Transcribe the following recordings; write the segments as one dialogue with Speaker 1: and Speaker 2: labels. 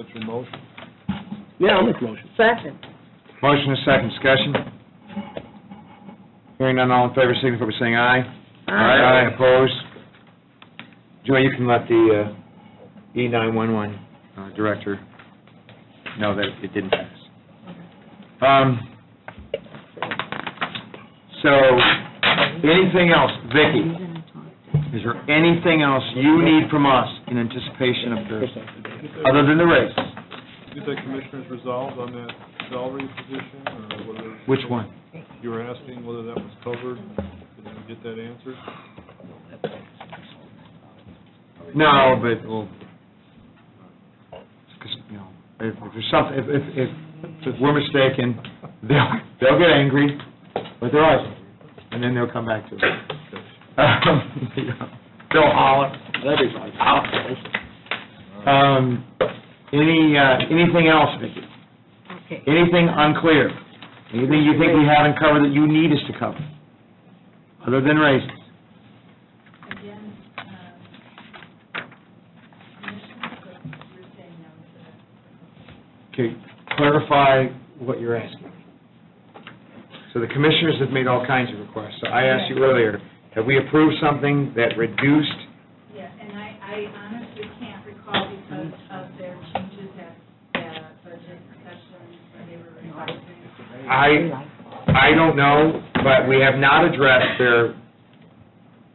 Speaker 1: What's your motion?
Speaker 2: Yeah, I'll make a motion.
Speaker 3: Second.
Speaker 4: Motion is second, discussion. Hearing none, all in favor, signify by saying aye. Aye, opposed. Joy, you can let the uh, E911 uh, director know that it didn't pass. Um, So, anything else? Vicki, is there anything else you need from us in anticipation of the, other than the race?
Speaker 1: Did the commissioners resolve on that salary position, or whether?
Speaker 4: Which one?
Speaker 1: You were asking whether that was covered, did you get that answered?
Speaker 4: No, but, well, 'cause, you know, if if there's something, if, if, if we're mistaken, they'll, they'll get angry, but they're us, and then they'll come back to us. Um, yeah. They'll holler, that'd be nice. Um, any, uh, anything else, Vicki?
Speaker 3: Okay.
Speaker 4: Anything unclear? Anything you think we haven't covered that you need us to cover, other than races?
Speaker 5: again, um, commissioners, but you're saying no to that.
Speaker 4: Okay, clarify what you're asking. So the commissioners have made all kinds of requests. So I asked you earlier, have we approved something that reduced,
Speaker 5: Yeah, and I, I honestly can't recall because of their changes at the budget discussions where they were revising.
Speaker 4: I, I don't know, but we have not addressed their,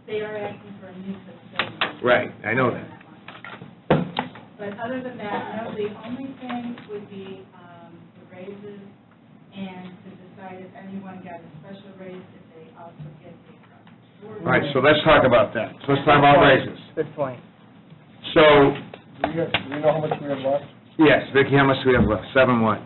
Speaker 5: They are asking for a new facility.
Speaker 4: right, I know that.
Speaker 5: But other than that, no, the only thing would be um, the raises and to decide if anyone got a special raise, if they also get the.
Speaker 4: All right, so let's talk about that. So let's talk about raises.
Speaker 3: Good point.
Speaker 4: So,
Speaker 2: Do you, do you know how much we have left?
Speaker 4: yes, Vicki, how much do we have left? Seven what?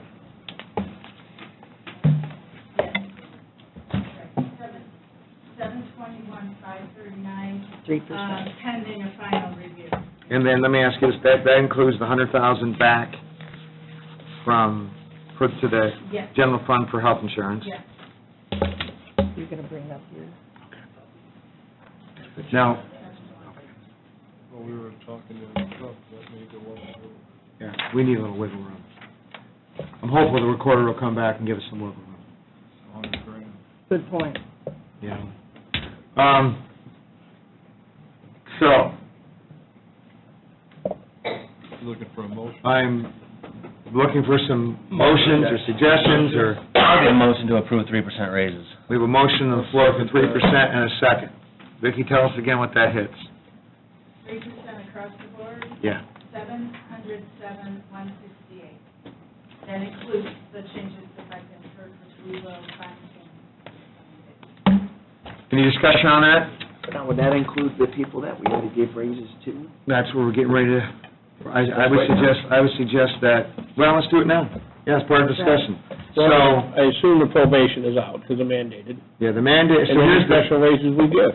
Speaker 5: Seven twenty-one, five thirty-nine,
Speaker 3: Three
Speaker 5: um,
Speaker 3: percent.
Speaker 5: pending a final review.
Speaker 4: And then let me ask you this, that, that includes the hundred thousand back from, put to the
Speaker 5: Yes,
Speaker 4: general fund for health insurance?
Speaker 5: yes.
Speaker 3: You're gonna bring up your.
Speaker 4: Now,
Speaker 1: Well, we were talking to the truck, that may go up.
Speaker 4: Yeah, we need a little wiggle room. I'm hopeful the recorder will come back and give us some wiggle room,
Speaker 1: A hundred grand.
Speaker 3: Good point.
Speaker 4: you know? Um, so,
Speaker 1: Looking for a motion?
Speaker 4: I'm looking for some motions or suggestions, or,
Speaker 6: I'll get a motion to approve three percent raises.
Speaker 4: we have a motion on the floor for three percent and a second. Vicki, tell us again what that hits.
Speaker 5: Three percent across the board,
Speaker 4: Yeah.
Speaker 5: seven hundred seven, one sixty-eight. That includes the changes that I've been heard, which we will find in.
Speaker 4: Any discussion on that?
Speaker 7: Now, would that include the people that we already gave raises to?
Speaker 4: That's where we're getting ready to, I, I would suggest, I would suggest that, well, let's do it now. Yeah, it's part of discussion. So,
Speaker 2: So, I assume the probation is out, because of mandated.
Speaker 4: yeah, the mandate, so
Speaker 2: And any
Speaker 4: here's the...
Speaker 2: special raises we give.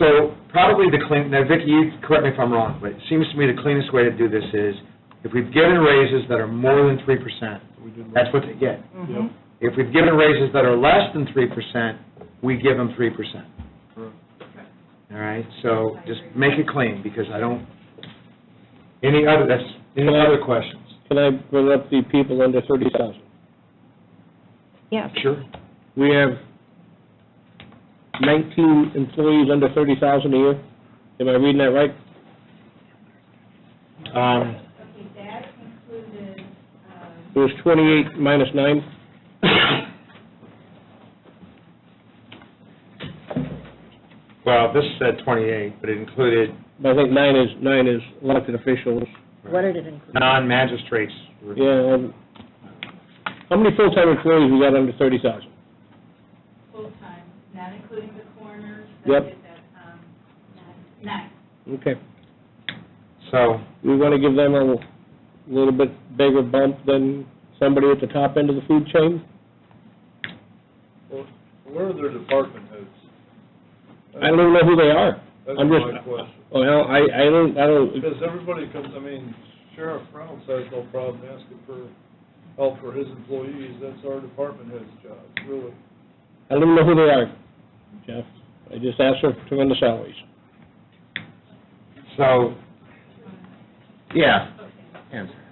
Speaker 4: So probably the clean, now Vicki, you correct me if I'm wrong, but it seems to me the cleanest way to do this is, if we've given raises that are more than three percent,
Speaker 1: We did
Speaker 4: that's what they get.
Speaker 3: Mm-hmm.
Speaker 1: Yep,
Speaker 4: If we've given raises that are less than three percent, we give them three percent,
Speaker 1: correct.
Speaker 4: all right? So just make it clean, because I don't, any other, that's, any other questions?
Speaker 2: Can I bring up the people under thirty thousand?
Speaker 3: Yes.
Speaker 4: Sure.
Speaker 2: We have nineteen employees under thirty thousand a year. Am I reading that right?
Speaker 4: Um,
Speaker 5: Okay, that included, um,
Speaker 2: It was twenty-eight minus nine.
Speaker 4: well, this said twenty-eight, but it included
Speaker 2: But I think nine is, nine is elected officials.
Speaker 3: What did it include?
Speaker 4: non-magistrates.
Speaker 2: Yeah, um, how many full-time employees we got under thirty thousand?
Speaker 5: full-time, not including the coroners.
Speaker 2: Yep.
Speaker 5: that did that, um, nine- Nine.
Speaker 2: Okay.
Speaker 4: So,
Speaker 2: we want to give them a little bit bigger bump than somebody at the top end of the food chain?
Speaker 1: Well, Where are their department heads?
Speaker 2: I don't even know who they are.
Speaker 1: That's
Speaker 2: I'm just-
Speaker 1: my question.
Speaker 2: Well, I, I don't, I don't,
Speaker 1: Because everybody comes, I mean, Sheriff Reynolds has no problem asking for help for his employees, that's our department head's job, really.
Speaker 2: I don't even know who they are, Jeff. I just asked her to run the salaries.
Speaker 4: so, yeah,
Speaker 5: Okay.
Speaker 4: answer.
Speaker 5: Um,